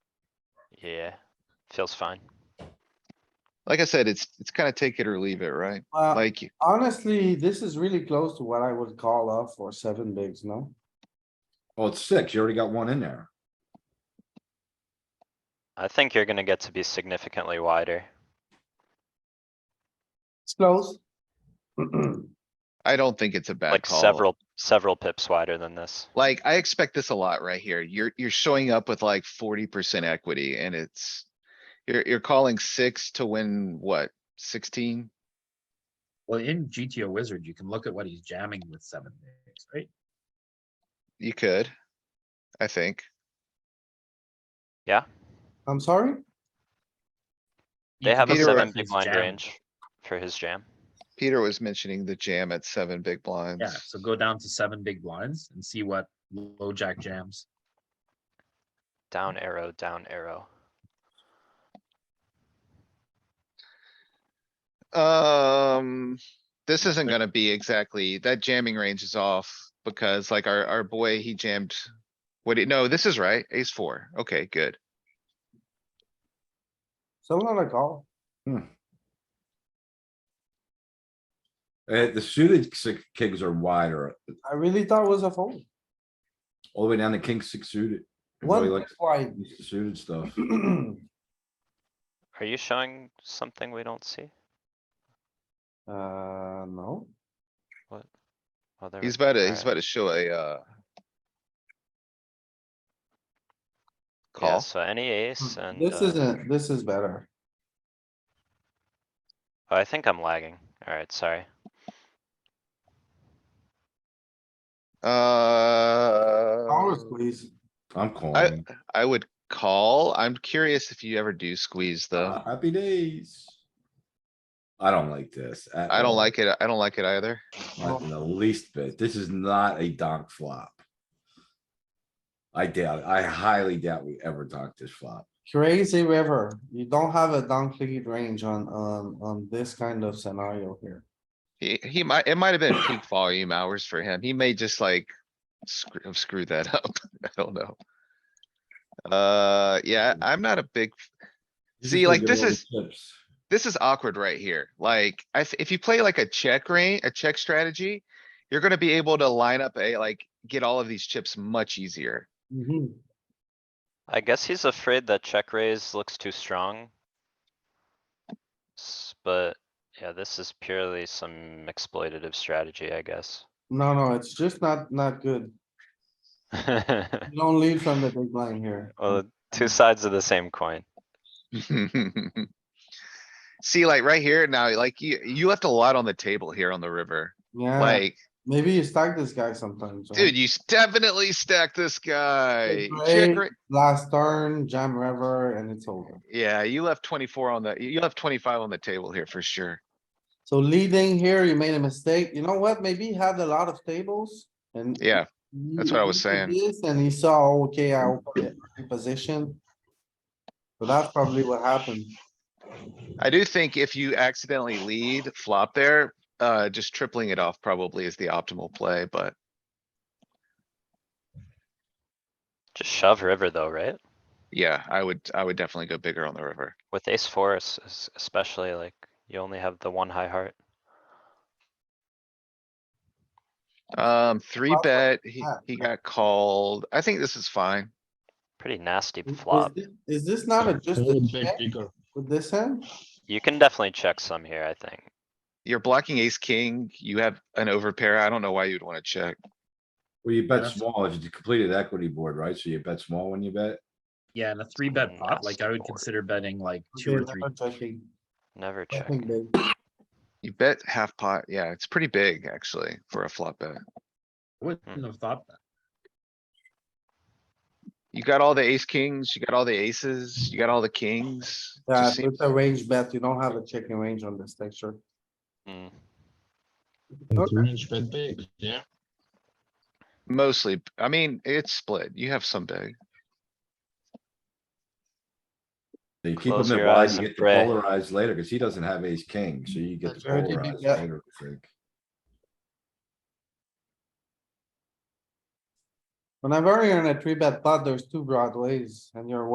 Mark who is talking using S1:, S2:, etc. S1: Yeah, feels fine.
S2: Like I said, it's, it's kinda take it or leave it, right?
S3: Uh,
S2: Like,
S3: honestly, this is really close to what I would call off for seven bigs, no?
S4: Well, it's six. You already got one in there.
S1: I think you're gonna get to be significantly wider.
S3: It's close.
S2: I don't think it's a bad
S1: Like
S2: call.
S1: several, several pips wider than this.
S2: Like, I expect this a lot right here. You're, you're showing up with like forty percent equity and it's. You're, you're calling six to win what, sixteen?
S5: Well, in GTO Wizard, you can look at what he's jamming with seven bigs, right?
S2: You could. I think.
S3: I'm sorry?
S5: You
S1: They
S5: can
S1: have a
S5: look at
S2: Peter,
S1: seven
S5: his
S1: big blind
S5: jam.
S1: range for his jam.
S2: Peter was mentioning the jam at seven big
S5: Yeah,
S2: blinds.
S5: so go down to seven big blinds and see what low jack jams.
S1: Down arrow, down arrow.
S2: Um, this isn't gonna be exactly, that jamming range is off because like our, our boy, he jammed. What, do you- no, this is right, ace four. Okay, good.
S3: So not a call.
S4: Uh, the suited six kings are wider,
S3: I really thought it was a fold.
S4: all the way down to king six suited. He really
S3: One big
S4: likes
S3: wide.
S4: the Suited stuff.
S1: Are you showing something we don't see?
S3: Uh, no,
S1: Oh, there we
S2: He's
S1: go.
S2: about to, he's
S1: Alright.
S2: about to show a, uh.
S1: Yeah,
S2: Call.
S1: so any
S5: Hmm,
S1: ace and,
S3: this
S1: uh,
S3: isn't, this is better.
S1: oh, I think I'm lagging. Alright, sorry.
S3: Call or
S2: Uh,
S1: Oh.
S3: squeeze.
S4: I'm calling.
S2: I would call. I'm curious if you ever do squeeze though.
S4: Happy days. I don't like this. at
S2: I don't
S4: all.
S2: like it. I don't like it either.
S4: Not in the least bit. This is not a donk flop. I doubt, it. I highly doubt we ever donk this flop.
S3: Crazy river. You don't have a down clicky range on, on, on this kind of scenario here.
S2: He, he might, it might have been peak volume hours for him. He may just like screw, screw that up. I don't know. Uh, yeah, I'm not a big,
S4: He's just
S2: See,
S4: gonna
S2: like,
S4: give
S2: this
S4: away
S2: is-
S4: chips.
S2: this is awkward right here. Like, I, th- if you play like a check range, a check strategy, you're gonna be able to line up a, like, get all of these chips much easier.
S1: Mm-hmm.
S3: Mhm.
S1: I guess he's afraid that check raise looks too strong. S- But, yeah, this is purely some exploitative strategy, I guess.
S3: No, no, it's just not, not good. You Don't lead from the big blind here.
S1: Well, two sides of the same coin.
S2: See, like, right here now, like, you, you left a lot on the table here on the river.
S3: Yeah,
S2: Like,
S3: maybe you stack this guy sometimes. right?
S2: dude, you s- definitely stacked this guy. Check
S3: great.
S2: ra-
S3: Last turn, jam river, and it's over.
S2: Yeah, you left twenty-four on the, you left twenty-five on the table here for sure.
S3: So leading here, you made a mistake. You know what? Maybe he had a lot of tables and.
S2: Yeah, that's what I was
S3: he did
S2: saying.
S3: this And he saw, okay, I will put it in position. So that's probably what happened.
S2: I do think if you accidentally lead flop there, uh, just tripling it off probably is the optimal play, but
S1: Just shove river though, right?
S2: yeah, I would, I would definitely go bigger on the river.
S1: With ace four es- es- especially, like, you only have the one high heart.
S2: Um, three
S3: Flop,
S2: bet, he,
S3: flop.
S2: he got called. I think this is fine.
S1: Pretty nasty
S3: Is
S1: flop.
S3: thi- Is this not a just a check with this hand?
S1: You can definitely check some here, I think.
S2: You're blocking ace, king. You have an overpair. I don't know why you'd wanna check.
S4: Well, you bet
S5: That's-
S4: small if it's a completed equity board, right? So you bet small when you bet.
S5: Yeah, and a three
S1: Mm,
S5: bet pot, like I
S1: Nasty
S5: would
S1: board.
S5: consider betting like two
S3: Okay,
S5: or
S3: never
S5: three.
S3: checking.
S1: Never check.
S3: Checking big.
S2: You bet half pot. Yeah, it's pretty big actually for a flop bet.
S5: I
S1: Hmm.
S5: Wouldn't have thought that.
S2: You got all the ace, kings, you got all the aces, you got all the kings. Just
S3: Yeah,
S2: seem-
S3: it's a range bet. You don't have a checking range on this texture.
S1: Mm.
S3: Okay.
S6: Range bet big, yeah.
S2: Mostly, b- I mean, it's split. You have some big.
S4: So you keep
S1: Close
S4: him in
S1: your
S4: wide,
S1: eyes
S4: you
S1: and
S4: get the
S1: pray.
S4: polarized later, cause he doesn't have ace king, so you get the
S3: That's right, he
S4: polarized
S3: got-
S4: later, I think.
S3: Whenever you're in a three bet pot, there's two broadways and you're